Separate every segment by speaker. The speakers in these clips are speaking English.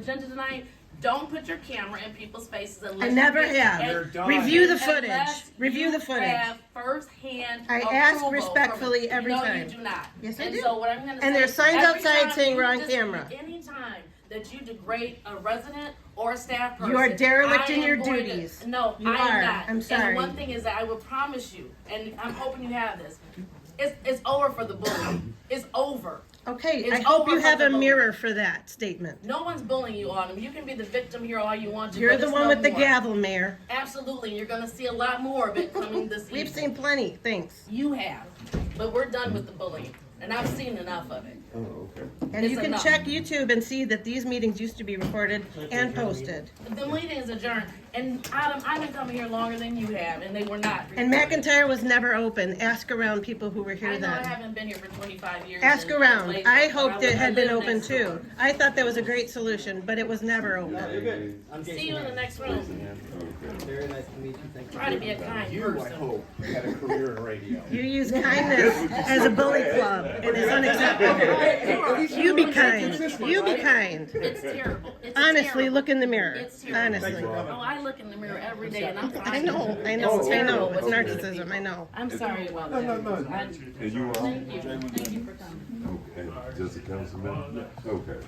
Speaker 1: agenda tonight, don't put your camera in people's faces unless.
Speaker 2: I never
Speaker 1: you-
Speaker 2: have.
Speaker 1: and-
Speaker 3: You're done.
Speaker 2: Review the footage.
Speaker 1: unless
Speaker 2: Review
Speaker 1: you
Speaker 2: the footage.
Speaker 1: Have firsthand.
Speaker 2: I ask
Speaker 1: approval from-
Speaker 2: respectfully every
Speaker 1: No, you
Speaker 2: time.
Speaker 1: do not.
Speaker 2: Yes, I
Speaker 1: and
Speaker 2: do.
Speaker 1: So what I'm gonna say.
Speaker 2: And there's signs
Speaker 1: every
Speaker 2: outside
Speaker 1: time
Speaker 2: saying
Speaker 1: you
Speaker 2: we're on
Speaker 1: dis-
Speaker 2: camera.
Speaker 1: Anytime that you degrade a resident or a staff person.
Speaker 2: You are derelict
Speaker 1: I
Speaker 2: in
Speaker 1: am
Speaker 2: your
Speaker 1: going to-
Speaker 2: duties.
Speaker 1: No,
Speaker 2: You
Speaker 1: I
Speaker 2: are.
Speaker 1: am not.
Speaker 2: I'm sorry.
Speaker 1: And one thing is that I will promise you, and I'm hoping you have this, it's, it's over for the bully. It's over.
Speaker 2: Okay,
Speaker 1: It's
Speaker 2: I hope
Speaker 1: over
Speaker 2: you
Speaker 1: for
Speaker 2: have
Speaker 1: the
Speaker 2: a
Speaker 1: vote.
Speaker 2: mirror for that statement.
Speaker 1: No one's bullying you, Autumn. You can be the victim here all you want to.
Speaker 2: You're
Speaker 1: but
Speaker 2: the
Speaker 1: it's
Speaker 2: one
Speaker 1: no
Speaker 2: with the
Speaker 1: more.
Speaker 2: gavel, Mayor.
Speaker 1: Absolutely, you're gonna see a lot more of it coming this evening.
Speaker 2: We've seen plenty, thanks.
Speaker 1: You have, but we're done with the bullying, and I've seen enough of it.
Speaker 3: Oh, okay.
Speaker 2: And you
Speaker 1: It's
Speaker 2: can
Speaker 1: enough.
Speaker 2: check YouTube and see that these meetings used to be recorded and posted.
Speaker 1: The meeting is adjourned, and Adam, I've been coming here longer than you have, and they were not.
Speaker 2: And McIntyre was never open. Ask around people who were
Speaker 1: I
Speaker 2: here
Speaker 1: know I
Speaker 2: then.
Speaker 1: haven't been here for twenty-five years.
Speaker 2: Ask
Speaker 1: and- and
Speaker 2: around.
Speaker 1: lately,
Speaker 2: I
Speaker 1: but
Speaker 2: hoped
Speaker 1: would-
Speaker 2: it had
Speaker 1: I
Speaker 2: been
Speaker 1: live
Speaker 2: open
Speaker 1: next door.
Speaker 2: too. I thought that was a great solution, but it was never open.
Speaker 4: You're good. I'm
Speaker 1: See you
Speaker 4: Jason.
Speaker 1: in the next room.
Speaker 4: Very nice to meet you. Thank you.
Speaker 1: Try to be a kind
Speaker 3: You, I
Speaker 1: person.
Speaker 3: hope, had a career in radio.
Speaker 2: You use kindness as a bully club. It is unacceptable. You be kind. You be kind.
Speaker 1: It's terrible. It's
Speaker 2: Honestly,
Speaker 1: terrible.
Speaker 2: look in the mirror.
Speaker 1: It's terrible.
Speaker 2: Honestly.
Speaker 1: Oh, I look in the mirror every day, and I'm.
Speaker 2: I know, I know, I know. It's narcissism, I know.
Speaker 1: I'm sorry about that.
Speaker 3: No, no, no.
Speaker 1: I-
Speaker 5: And you are?
Speaker 1: Thank you, thank you for coming.
Speaker 5: Okay, just a council member? Okay.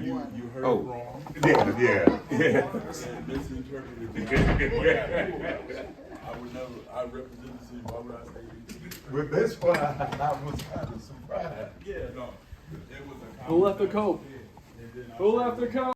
Speaker 6: You, you heard
Speaker 5: Oh.
Speaker 6: wrong.
Speaker 5: Yeah, yeah, yeah.
Speaker 6: And misinterpreted. it. I would never, I represent the city, why would I say anything?
Speaker 5: With this one, I was kind of surprised.
Speaker 6: Yeah, no. It was a
Speaker 7: Who left the
Speaker 6: common
Speaker 7: coat?
Speaker 6: sense. And then I
Speaker 7: Who
Speaker 6: said-
Speaker 7: left the coat?